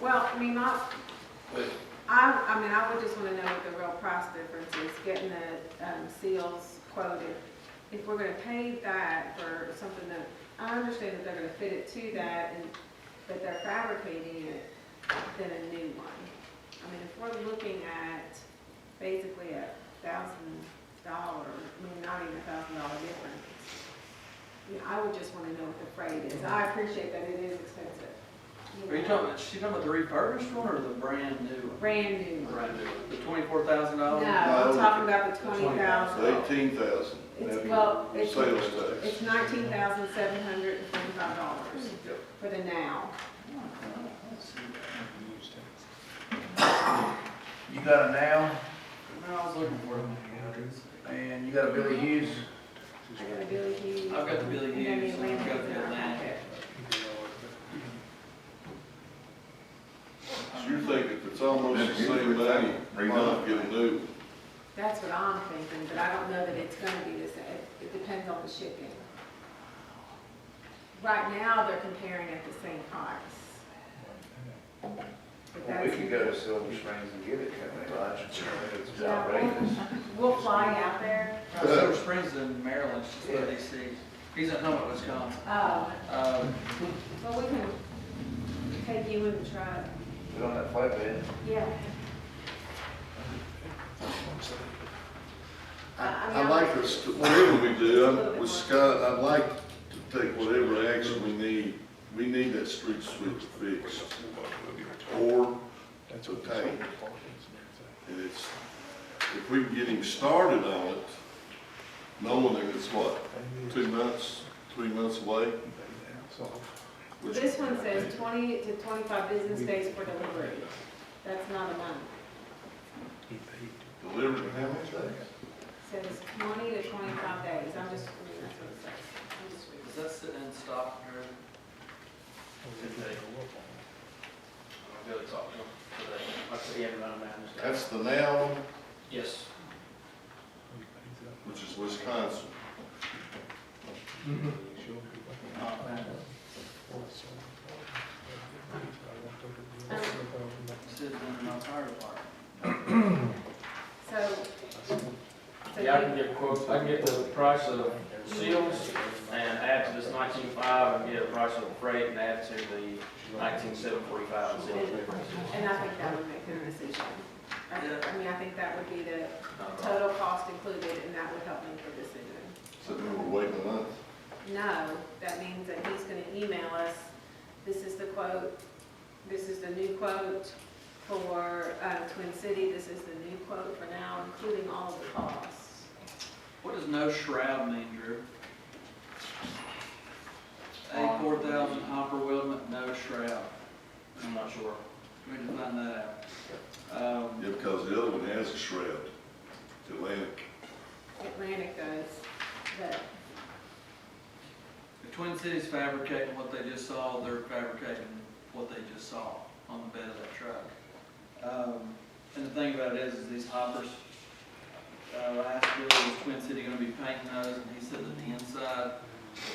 Well, I mean, my, But I, I mean, I would just wanna know what the real price difference is, getting the, um, seals quoted. If we're gonna pay that for something that, I understand that they're gonna fit it to that and, but they're fabricating it, than a new one. I mean, if we're looking at basically a thousand dollar, I mean, not even a thousand dollar difference. I mean, I would just wanna know what the freight is. I appreciate that it is expensive. Are you know. talking, she talking about the refurbished one or the brand new one? Brand new one. Brand new. one. The twenty-four thousand No, dollars? I'm No. talking about the The twenty thousand. eighteen thousand. It's, well, it's, Sales tax. it's nineteen thousand seven hundred and forty-five dollars for the now. You got a now, No, I was looking for them. and you got a Mm-hmm. Billy Hughes, I got a Billy Hughes. I've got the Billy and then Hughes, and I've got the Atlantic in my Atlantic. pocket. So you're thinking if it's almost the same value, you might get a new. one. That's what I'm thinking, but I don't know that it's gonna be the same. It depends on the shipping. Right now, they're comparing at the same price. But Well, we that's- could go to Silver Springs and give it to them, Raj. It's Yeah, outrageous. We'll fly out there. Uh, Silver Springs in Maryland, she's where DC. He's in Humboldt, Wisconsin. Oh, Uh, well, we can take you in the truck. Put on that flatbed. Yeah. I I like us, to- whatever we do, I'm with Scott, I'd like to take whatever action we need. We need that street sweep fixed or obtained. And it's, if we can get him started on it, knowing that it's what, two months, three months away? which- This one says twenty to twenty-five business days for delivery. That's not a month. Delivered in how many days? It says twenty to twenty-five days. I'm just, I mean, that's what it says. I'm just reading. is that sitting in Stockton or? I'll go talk to him today. I'll see him around now. That's the now, one, Yes. which is Wisconsin. Sitting in my fire department. So. so Yeah, I you- can get quotes, I can get the price of seals and add to this nineteen five and get a price of freight and add to the nineteen seven forty-five and seals. And I think that would make the decision. I think- I mean, I think that would be the Uh, total cost included, and that would help make the decision. So then we're waiting a month. No, that means that he's gonna email us, this is the quote, this is the new quote for uh, Twin City, this is the new quote for now, including all of the costs. What does no shroud mean, Drew? Um, A four thousand hopper weldment, no shroud. I'm not sure. We need to find that out. Um, Yeah, because the other one has a shroud, Atlantic. Atlantic does, but The Twin Cities fabricating what they just saw, they're fabricating what they just saw on the bed of that truck. Um, And the thing about it is, is these hoppers, uh, last year was Twin City gonna be painting those, and he said that the inside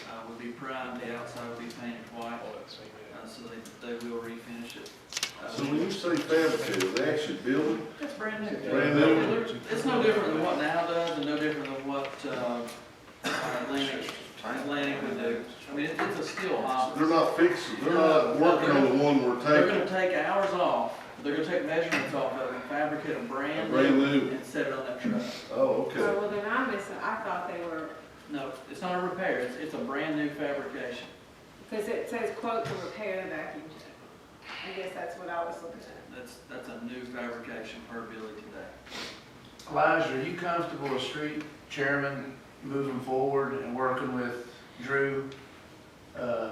uh, would be primed, the outside would be painted white, uh, so they, they will refinish it. Uh, So when you say fabricated, they actually build it? That's brand new. Brand new. It's no different than what now does, and no different than what uh, Atlantic, Atlantic would do. I mean, it- it's a steel hopper. They're not fixing, they're not working on the one we're They're gonna taking, take hours off, they're gonna take measurements off of it, fabricate a brand brand new, new. and set it on that truck. Oh, Oh, okay. well, then I miss, I thought they were, No, it's not a repair, it's, it's a brand new fabrication. because it says quote to repair the vacuum jet. I guess that's what I was looking at. That's, that's a new fabrication per Billy today. Elijah, are you comfortable as street chairman moving forward and working with Drew? um,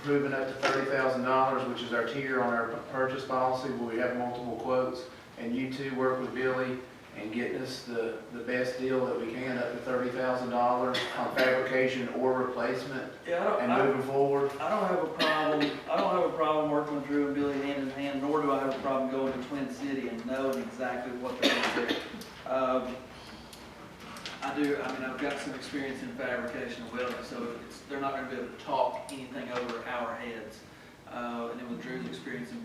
Approving up to thirty thousand dollars, which is our tier on our purchase policy, where we have multiple quotes. And you two work with Billy and getting us the, the best deal that we can, up to thirty thousand dollars on fabrication or replacement Yeah, I don't, and I, moving forward. I don't have a problem, I don't have a problem working with Drew and Billy hand in hand, nor do I have a problem going to Twin City and knowing exactly what they're gonna do. Um, I do, I mean, I've got some experience in fabrication and welding, so it's, they're not gonna be able to talk anything over our heads. Uh, and then with Drew's experience in